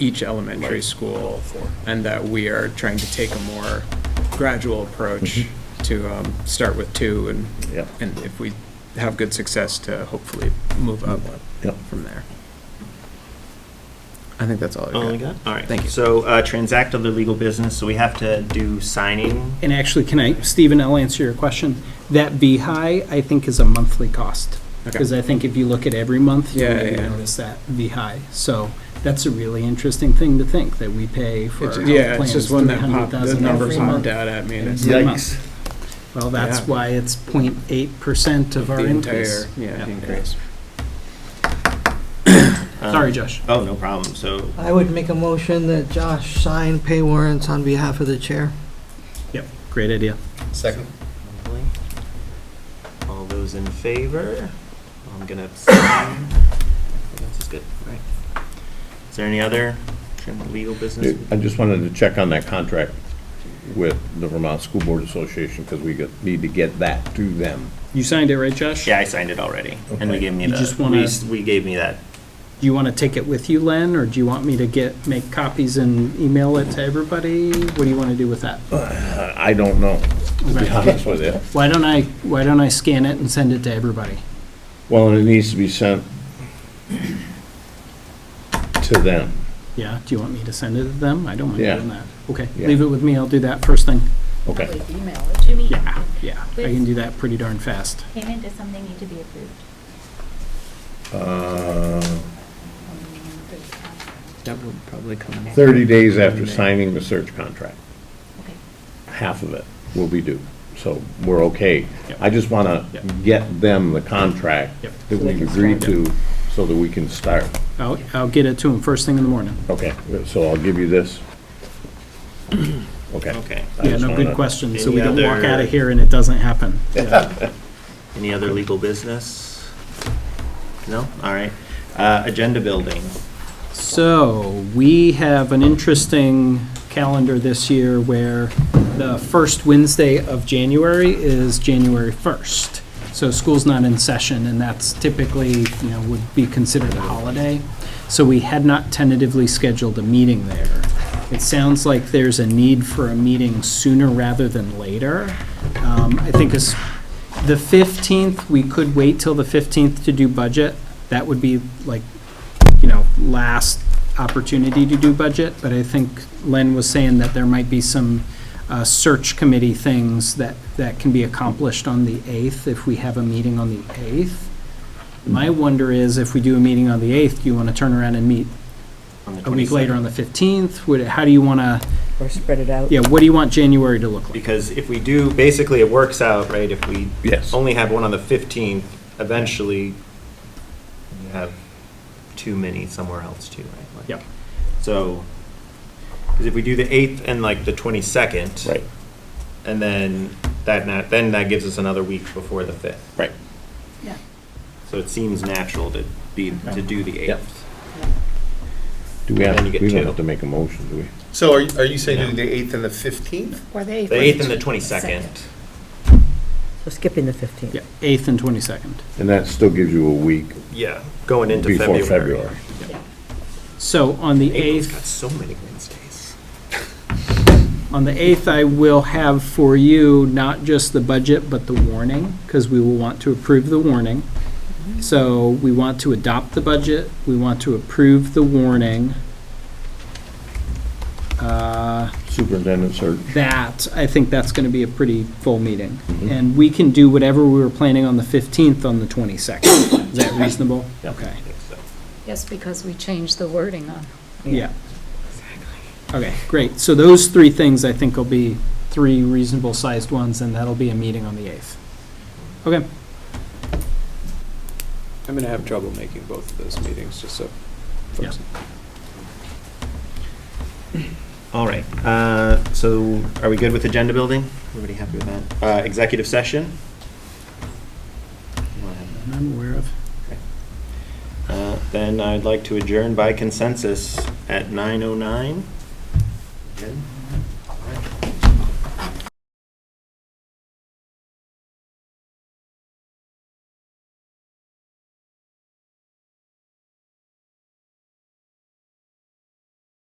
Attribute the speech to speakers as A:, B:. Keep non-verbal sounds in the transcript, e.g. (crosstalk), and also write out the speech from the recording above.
A: each elementary school, and that we are trying to take a more gradual approach to um, start with two, and,
B: Yep.
A: and if we have good success, to hopefully move up
B: Yep.
A: from there. I think that's all I've got.
C: All we got? All right.
A: Thank you.
C: So uh, transact other legal business, so we have to do signing.
D: And actually, can I, Stephen, I'll answer your question. That VHI, I think, is a monthly cost.
A: Okay.
D: Because I think if you look at every month, you're
A: Yeah,
D: going
A: yeah, yeah.
D: to notice that VHI. So that's a really interesting thing to think, that we pay for our
A: It's-
D: health
A: Yeah, it's
D: plans
A: just one that popped, the
D: $300,000
A: number
D: every
A: popped
D: month.
A: out at me, and it's
D: Yeah.
A: like
B: Yikes.
D: Well, that's
A: Yeah.
D: why it's 0.8% of our
A: the entire,
D: increase.
A: yeah,
D: Yeah.
A: the increase.
C: Um,
D: Sorry, Josh.
C: Oh, no problem. So
E: I would make a motion that Josh sign pay warrants on behalf of the chair.
D: Yep, great idea.
F: Second.
C: all those in favor? I'm gonna abstain. This is good. All right. Is there any other tran- legal business?
B: I just wanted to check on that contract with the Vermont School Board Association, because we get- need to get that to them.
D: You signed it, right, Josh?
C: Yeah, I signed it already, and we
B: Okay.
C: gave me
D: You
C: the,
D: just wanna-
C: we s- we gave me that.
D: Do you want to take it with you, Len, or do you want me to get, make copies and email it to everybody? What do you want to do with that?
B: I I don't know, to be
D: Right.
B: honest with you.
D: Why don't I, why don't I scan it and send it to everybody?
B: Well, and it needs to be sent to them.
D: Yeah, do you want me to send it to them? I don't mind
B: Yeah.
D: doing that. Okay,
B: Yeah.
D: leave it with me, I'll do that first thing.
B: Okay,
G: Email it to me.
D: Yeah, yeah, I can do that pretty darn fast.
G: Payment, does something need to be approved?
B: Uh,
A: That would probably come.
B: 30 days after signing the search contract.
G: Okay.
B: half of it will be due. So we're okay.
D: Yep.
B: I just want to
D: Yep.
B: get them the contract
D: Yep.
B: that we've agreed to so that we can start.
D: I'll, I'll get it to them first thing in the morning.
B: Okay, so I'll give you this. Okay.
C: Okay.
B: I
D: Yeah,
B: just
D: no, good
B: wanna-
D: question, so
C: Any
D: we don't walk
C: other-
D: out of here and it
B: (laughs)
D: doesn't happen.
C: Any other legal business? No? All right. Uh, Agenda building.
D: So, we have an interesting calendar this year where the first Wednesday of January is January 1st. So school's not in session, and that's typically, you know, would be considered a holiday. So we had not tentatively scheduled a meeting there. It sounds like there's a need for a meeting sooner rather than later. Um, I think it's, the 15th, we could wait till the 15th to do budget. That would be like you know, last opportunity to do budget, but I think Len was saying that there might be some uh, search committee things that, that can be accomplished on the 8th if we have a meeting on the 8th. My wonder is if we do a meeting on the 8th, do you want to turn around and meet
C: on the
D: a week
C: 22nd.
D: later on the 15th? Would, how do you want to,
H: or spread it out.
D: yeah, what do you want January to look like?
C: Because if we do, basically it works out, right? If we
B: Yes.
C: only have one on the 15th, eventually you have too many somewhere else too, right? Like-
D: Yep.
C: So, because if we do the 8th and like the 22nd.
B: Right,
C: And then that, na- then that gives us another week before the 5th.
B: right.
G: Yeah.
C: So it seems natural to be, to do the
B: Yep.
C: 8th.
B: Do we have,
C: Then you get
B: we don't
C: two.
B: have to make a motion, do we?
F: So are, you- are you saying do the 8th and the 15th?
G: Or the
C: The 8th and the 22nd.
H: So skipping the 15th.
D: Yeah, 8th and 22nd.
B: And that still gives you a week
C: Yeah, going into February.
B: before February.
D: So on the
C: April's
D: 8th.
C: got so many Wednesdays.
D: On the 8th, I will have for you not just the budget, but the warning, because we will want to approve the warning. So we want to adopt the budget, we want to approve the warning. Uh,
B: Superintendent search,
D: That, I think that's going to be a pretty full meeting.
C: Mm-hmm.
D: And we can do whatever we were planning on the 15th on the 22nd. Is
G: (coughs)
D: that reasonable?
B: Yep.
D: Okay,
C: I think so.
G: Yes, because we changed the wording on.
D: yeah. Okay, great. So those three things, I think, will be three reasonable-sized ones, and that'll be a meeting on the 8th. Okay.
A: I'm gonna have trouble making both of those meetings, just so folks.
C: All right, uh, so are we good with agenda building? Everybody happy with that? Uh, Executive session? You wanna have that?
D: I'm aware of.
C: Uh, Then I'd oh like to adjourn by consensus at 9:09. Good?